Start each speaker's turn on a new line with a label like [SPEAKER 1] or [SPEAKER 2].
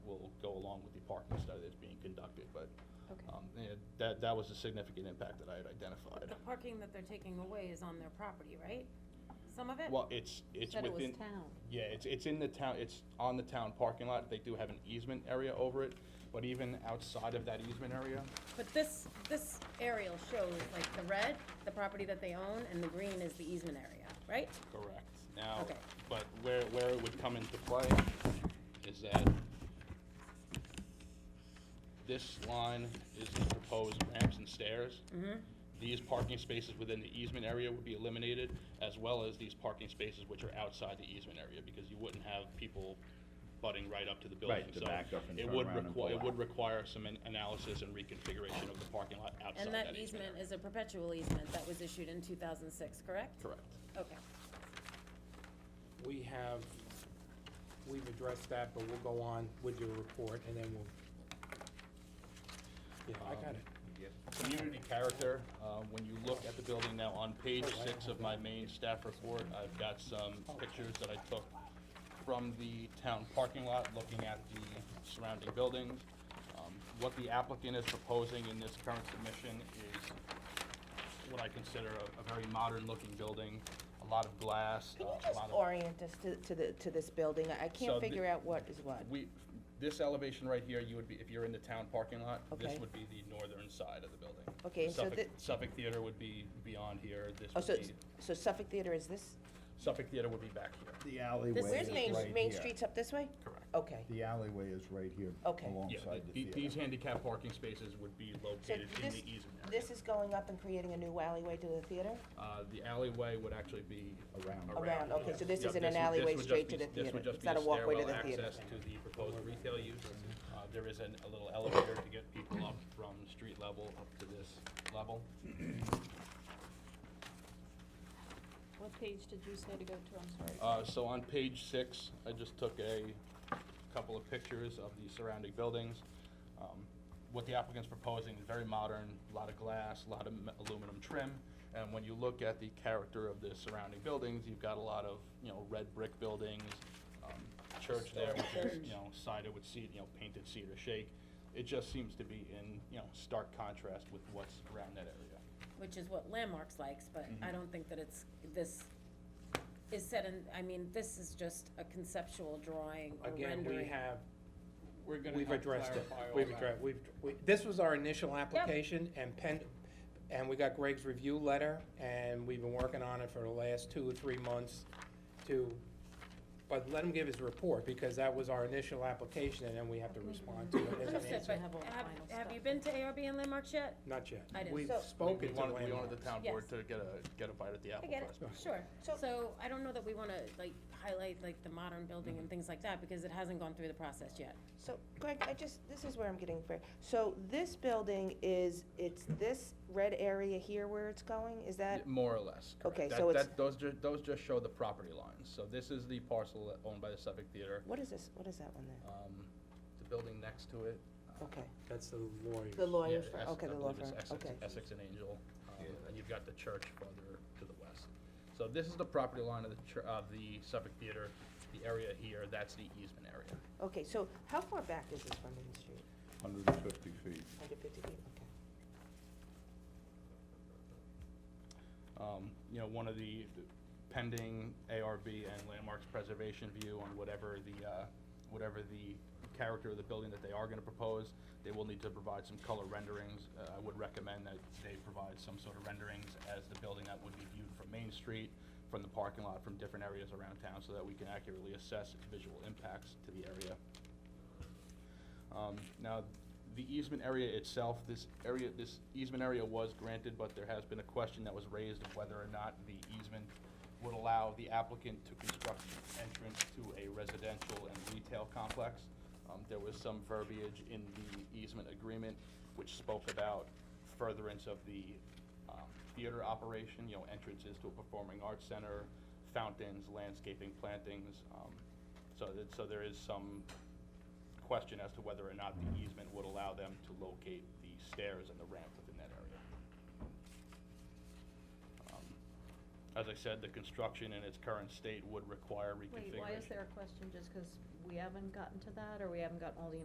[SPEAKER 1] along with the parking study that's being conducted, but,
[SPEAKER 2] Okay.
[SPEAKER 1] um, yeah, that, that was a significant impact that I had identified.
[SPEAKER 3] The parking that they're taking away is on their property, right? Some of it?
[SPEAKER 1] Well, it's, it's
[SPEAKER 2] Said it was
[SPEAKER 1] within,
[SPEAKER 2] town.
[SPEAKER 1] yeah, it's, it's in the town, it's on the town parking lot, they do have an easement area over it, but even outside of that easement area,
[SPEAKER 3] But this, this aerial shows like the red, the property that they own, and the green is the easement area, right?
[SPEAKER 1] Correct. Now,
[SPEAKER 3] Okay.
[SPEAKER 1] but where, where it would come into play is that this line is the proposed ramps and stairs.
[SPEAKER 3] Mm-hmm.
[SPEAKER 1] These parking spaces within the easement area would be eliminated, as well as these parking spaces which are outside the easement area, because you wouldn't have people butting right up to the building.
[SPEAKER 4] Right, to
[SPEAKER 1] So
[SPEAKER 4] back up and
[SPEAKER 1] it
[SPEAKER 4] turn
[SPEAKER 1] would
[SPEAKER 4] around and
[SPEAKER 1] require,
[SPEAKER 4] pull
[SPEAKER 1] it would
[SPEAKER 4] out.
[SPEAKER 1] require some an- analysis and reconfiguration of the parking lot outside
[SPEAKER 3] And
[SPEAKER 1] that easement
[SPEAKER 3] that easement
[SPEAKER 1] area.
[SPEAKER 3] is a perpetual easement that was issued in two thousand six, correct?
[SPEAKER 1] Correct.
[SPEAKER 3] Okay.
[SPEAKER 5] We have, we've addressed that, but we'll go on with your report, and then we'll. Yeah, I got it.
[SPEAKER 1] Community character, uh, when you look at the building now, on page six of my main staff report, I've got some pictures that I took from the town parking lot, looking at the surrounding buildings. Um, What the applicant is proposing in this current submission is what I consider a, a very modern-looking building, a lot of glass, uh,
[SPEAKER 6] Can you
[SPEAKER 1] a
[SPEAKER 6] just
[SPEAKER 1] lot of.
[SPEAKER 6] orient us to, to the, to this building? I- I
[SPEAKER 1] So
[SPEAKER 6] can't
[SPEAKER 1] the-
[SPEAKER 6] figure out what is what.
[SPEAKER 1] We, this elevation right here, you would be, if you're in the town parking lot, this
[SPEAKER 6] Okay.
[SPEAKER 1] would be the northern side of the building.
[SPEAKER 6] Okay, and so
[SPEAKER 1] Suffolk-
[SPEAKER 6] thi-
[SPEAKER 1] Suffolk Theater would be beyond here, this
[SPEAKER 6] Oh, so,
[SPEAKER 1] would
[SPEAKER 6] it's-
[SPEAKER 1] be,
[SPEAKER 6] so Suffolk Theater is this?
[SPEAKER 1] Suffolk Theater would be back here.
[SPEAKER 4] The alleyway
[SPEAKER 6] This,
[SPEAKER 4] is
[SPEAKER 6] where's Main,
[SPEAKER 4] right
[SPEAKER 6] Main
[SPEAKER 4] here.
[SPEAKER 6] Street's up this way?
[SPEAKER 1] Correct.
[SPEAKER 6] Okay.
[SPEAKER 4] The alleyway is right here
[SPEAKER 6] Okay. Yeah,
[SPEAKER 1] Yeah,
[SPEAKER 4] alongside
[SPEAKER 1] the-
[SPEAKER 4] the
[SPEAKER 1] the- these
[SPEAKER 4] theater.
[SPEAKER 1] handicap parking spaces would be
[SPEAKER 6] So
[SPEAKER 1] located in
[SPEAKER 6] this,
[SPEAKER 1] the easement area.
[SPEAKER 6] this is going up and creating a new alleyway to the theater?
[SPEAKER 1] Uh, the alleyway would actually be.
[SPEAKER 4] Around.
[SPEAKER 6] Around, okay,
[SPEAKER 1] yeah.
[SPEAKER 6] so this
[SPEAKER 1] Yeah,
[SPEAKER 6] isn't
[SPEAKER 1] would-
[SPEAKER 6] an
[SPEAKER 1] this
[SPEAKER 6] alleyway
[SPEAKER 1] would just
[SPEAKER 6] straight
[SPEAKER 1] be-
[SPEAKER 6] to the
[SPEAKER 1] This
[SPEAKER 6] theater.
[SPEAKER 1] would just
[SPEAKER 6] It's
[SPEAKER 1] be
[SPEAKER 6] not
[SPEAKER 1] a
[SPEAKER 6] a walkway to
[SPEAKER 1] stairwell
[SPEAKER 6] the theater.
[SPEAKER 1] access to the proposed retail use. Uh, there is an, a little elevator to get people up from street level up to this level.
[SPEAKER 2] What page did you say to go to? I'm sorry.
[SPEAKER 1] Uh, so on page six, I just took a couple of pictures of the surrounding buildings. Um, What the applicant's proposing is very modern, a lot of glass, a lot of m- aluminum trim. And when you look at the character of the surrounding buildings, you've got a lot of, you know, red brick buildings, um, church there, which is, you know, sided with cedar, you know, painted cedar shake. It just seems to be in, you know, stark contrast with what's around that area.
[SPEAKER 3] Which is what Landmarks likes, but I don't think that it's, this is set in, I mean, this is just a conceptual drawing or
[SPEAKER 5] um, Again,
[SPEAKER 3] rendering.
[SPEAKER 5] we have,
[SPEAKER 7] We're gonna
[SPEAKER 5] we've
[SPEAKER 7] help
[SPEAKER 5] addressed it.
[SPEAKER 7] clarify all
[SPEAKER 5] We've
[SPEAKER 7] that.
[SPEAKER 5] addressed, we've, we- this was our initial application, and pen, and we got Greg's review letter, and we've been working on it for the last two or three months to, but let him give his report, because that was our initial application, and then we have to respond to it as an
[SPEAKER 3] Understood,
[SPEAKER 5] answer.
[SPEAKER 3] but
[SPEAKER 2] have all the
[SPEAKER 3] have,
[SPEAKER 2] final
[SPEAKER 3] have
[SPEAKER 2] stuff.
[SPEAKER 3] you been to ARB and Landmarks yet?
[SPEAKER 5] Not yet.
[SPEAKER 3] I didn't.
[SPEAKER 5] We've
[SPEAKER 6] So-
[SPEAKER 1] We
[SPEAKER 5] spoken to
[SPEAKER 1] wanted, we
[SPEAKER 5] landlords.
[SPEAKER 1] wanted the town board
[SPEAKER 3] Yes.
[SPEAKER 1] to get a, get a bite at the
[SPEAKER 3] I
[SPEAKER 1] apple
[SPEAKER 3] get
[SPEAKER 1] first.
[SPEAKER 3] it, sure.
[SPEAKER 6] So-
[SPEAKER 3] So I don't know that we wanna like highlight like the modern building and things like that, because it hasn't gone through the process yet.
[SPEAKER 6] So Greg, I just, this is where I'm getting, fra- so this building is, it's this red area here where it's going? Is that?
[SPEAKER 1] Yeah, More or less, correct.
[SPEAKER 6] Okay,
[SPEAKER 1] That-
[SPEAKER 6] so it's-
[SPEAKER 1] that- Those ju, those just show the property lines, so this is the parcel that- owned by the Suffolk Theater,
[SPEAKER 6] What is this, what is that one there?
[SPEAKER 1] um, the building next to it. uh,
[SPEAKER 6] Okay.
[SPEAKER 5] That's the lawyers.
[SPEAKER 6] The
[SPEAKER 1] yeah,
[SPEAKER 6] lawyer,
[SPEAKER 1] Essex-
[SPEAKER 6] firm. Oh, okay,
[SPEAKER 1] I
[SPEAKER 6] the law
[SPEAKER 1] believe it's
[SPEAKER 6] firm,
[SPEAKER 1] Essex-
[SPEAKER 6] okay.
[SPEAKER 1] Essex and Angel, um,
[SPEAKER 4] Yeah.
[SPEAKER 1] and you've got the church farther to the west. So this is the property line of the chur, of the Suffolk Theater, the area here, that's the easement area.
[SPEAKER 6] Okay, so how far back is this from Main Street?
[SPEAKER 4] Hundred and fifty feet.
[SPEAKER 6] Hundred fifty feet, okay.
[SPEAKER 1] um, you know, one of the the pending ARB and landmarks preservation view on whatever the, uh, whatever the character of the building that they are gonna propose. They will need to provide some color renderings. Uh, I would recommend that they provide some sort of renderings as the building that would be viewed from Main Street, from the parking lot, from different areas around town, so that we can accurately assess its visual impacts to the area. Um, Now, the easement area itself, this area, this easement area was granted, but there has been a question that was raised of whether or not the easement would allow the applicant to construct an entrance to a residential and retail complex. Um, There was some verbiage in the easement agreement which spoke about furtherance of the um, theater operation, you know, entrances to a performing arts center, fountains, landscaping, plantings. um, So that, so there is some question as to whether or not the easement would allow them to locate the stairs and the ramp within that area. Um, As I said, the construction in its current state would require reconfiguration.
[SPEAKER 2] Wait, why is there a question? Just because we haven't gotten to that, or we haven't gotten all the